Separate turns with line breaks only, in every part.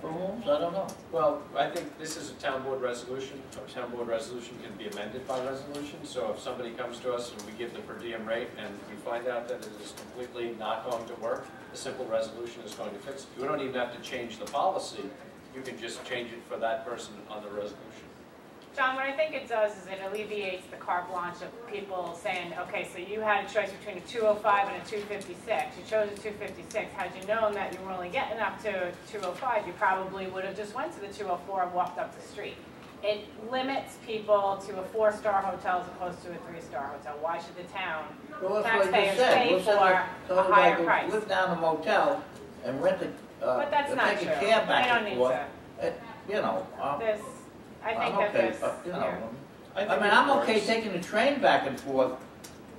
for homes, I don't know.
Well, I think this is a town board resolution, a town board resolution can be amended by resolution, so if somebody comes to us and we give the per diem rate and we find out that it is completely not going to work, a simple resolution is going to fix it. You don't even have to change the policy, you can just change it for that person on the resolution.
John, what I think it does is it alleviates the carte blanche of people saying, okay, so you had a choice between a 205 and a 256. You chose a 256. Had you known that you were only getting up to 205, you probably would have just went to the 204 and walked up the street. It limits people to a four-star hotel as opposed to a three-star hotel. Why should the town?
Well, that's what I
Taxpayers
just said.
pay
We'll send
for
a-
a
somebody
higher
could
price.
Live down a motel and rent a, uh,
But that's
and
not
take
true.
a cab
They
back
don't
and
need
forth.
to.
Uh, You know, I'm,
There's, I think
I'm
that
okay,
there's,
uh, you know.
yeah.
I mean,
think it
I'm okay
works.
taking the train back and forth,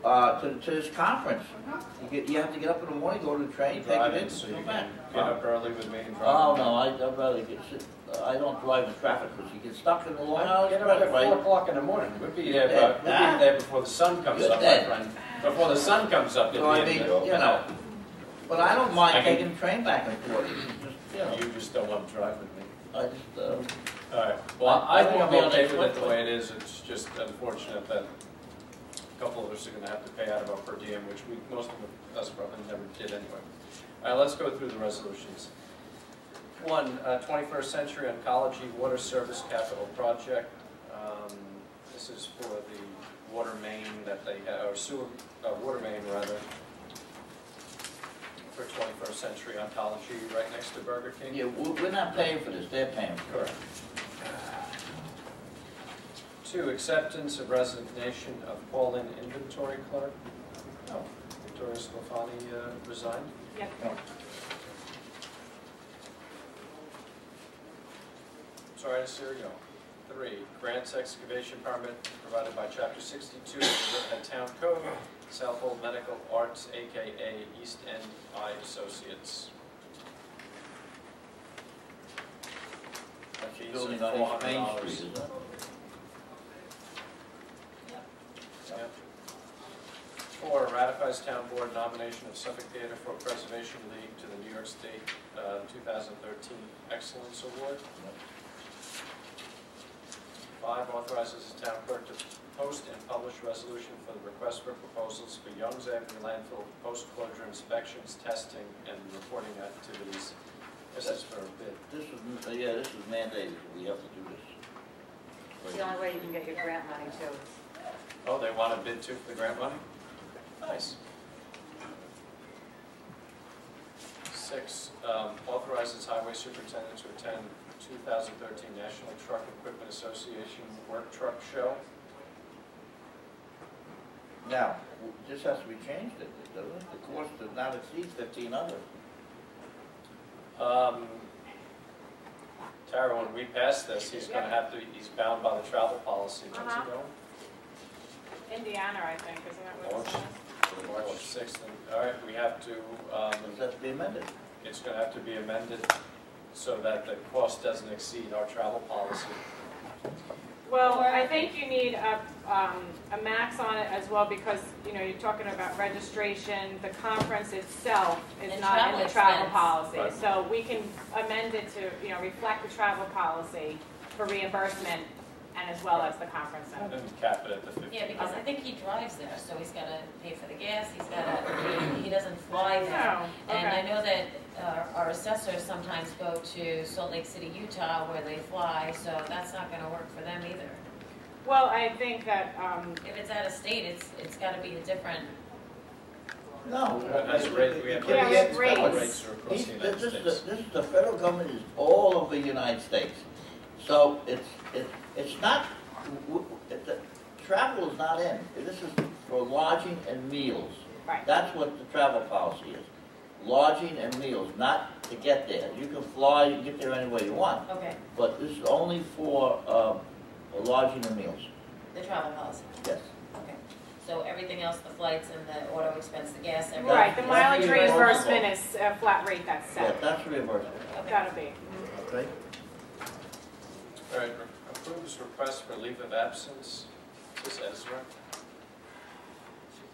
uh, to, to this conference.
Uh-huh.
You get, you have to get up in the morning, go to the train, take
Drive
it in,
so you
come
can
back.
get up early with me and drive.
Oh, no, I, I'd rather get, sit- I don't drive in traffic, because you get stuck in the Long Island
Get up at
Expressway.
four o'clock in the morning, we'd be there,
Yeah.
but, we'd be there before the sun comes
Good
up, my
day.
friend. Before the sun comes up, you'd
So I
be
mean,
in
you
there.
know, but I don't mind
I can-
taking the train back and forth, just, you know,
You just don't want to drive with me.
I just, uh,
All right, well, I think I'm
Well,
okay
that's
with it the
what-
way it is, it's just unfortunate that a couple of us are gonna have to pay out of our per diem, which we, most of us probably never did anyway. All right, let's go through the resolutions. One, uh, 21st Century Oncology Water Service Capital Project. Um, This is for the water main that they, ha- or sewer, uh, water main rather, for 21st Century Oncology, right next to Burger King.
yeah, we're, we're not paying for this, they're paying for
Correct. Two, acceptance of resignation of Pauline Inventory Clerk. Oh, Victoria Sclafani uh, resigned.
Yep.
Sorry to see her go. Three, grants excavation permit provided by Chapter 62 of the Riverhead Town Code, Southhold Medical Arts, AKA East End Eye Associates.
it.
Fees of
Building on East Main
$400.
Street, is that?
Yeah. Four, ratifies town board nomination of Suffolk Theater for Preservation League to the New York State uh, 2013 Excellence Award. Five, authorizes the town clerk to post and publish resolution for the request for proposals for Young's Avenue landfill post-closure inspections, testing, and reporting activities. This is for a bid.
This is, uh, yeah, this is mandated, we have to do this.
It's the only way you can get your grant money too.
Oh, they want a bid too for the grant money? Nice. Six, um, authorizes highway superintendent to attend 2013 National Truck Equipment Association Work Truck Show.
Now, w- this has to be changed, it- doesn't it? The cost does not exceed fifteen hundred.
Um, Tara, when we pass this, he's gonna have to, he's bound by the travel policy, what's it
Uh-huh.
going?
Indiana, I think, isn't it? what
Orange.
it's called?
March 6th, and, all right, we have to, um,
Does that have to be amended?
It's gonna have to be amended so that the cost doesn't exceed our travel policy.
Well, I think you need a, um, a max on it as well, because, you know, you're talking about registration, the conference itself is
And
not in the
travel
travel
expense.
policy.
Right.
So we can amend it to, you know, reflect the travel policy for reimbursement and as well as the conference
And
center.
cap it at the fifteen.
Yeah, because I think he drives there, so he's gotta pay for the gas, he's gotta, he- he doesn't fly there.
No,
And I
Oh, okay.
know that uh, our assessors sometimes go to Salt Lake City, Utah, where they fly, so that's not gonna work for them either.
Well, I think that, um,
If it's out of state, it's, it's gotta be a different,
No.
That's rate, we have.
Yeah, we have
rates.
rates.
Rates are across
These-
the
This
United
is, the-
States.
this is, the federal government is all over the United States. So it's, it's, it's not, w- w- the, travel is not in. This is for lodging and meals.
right,
That's what the travel policy is. Lodging and meals, not to get there. You can fly, you can get there any way you want,
okay,
but this is only for, um, lodging and meals,
the travel policy,
yes.
okay. So everything else, the flights and the auto expense, the gas, everything.
right, the
That's
mileage
reimbursable.
reimbursement is a flat rate that's
Yeah,
set,
that's reimbursable,
Okay,
gotta be.
okay?
All right, re- approves request for leave of absence, this Ezra,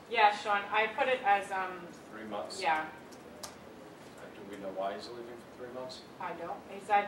Yeah, Sean, I put it as, um,
three months. Uh,
yeah,
Do we know why he's leaving for three months?
I don't, he's, I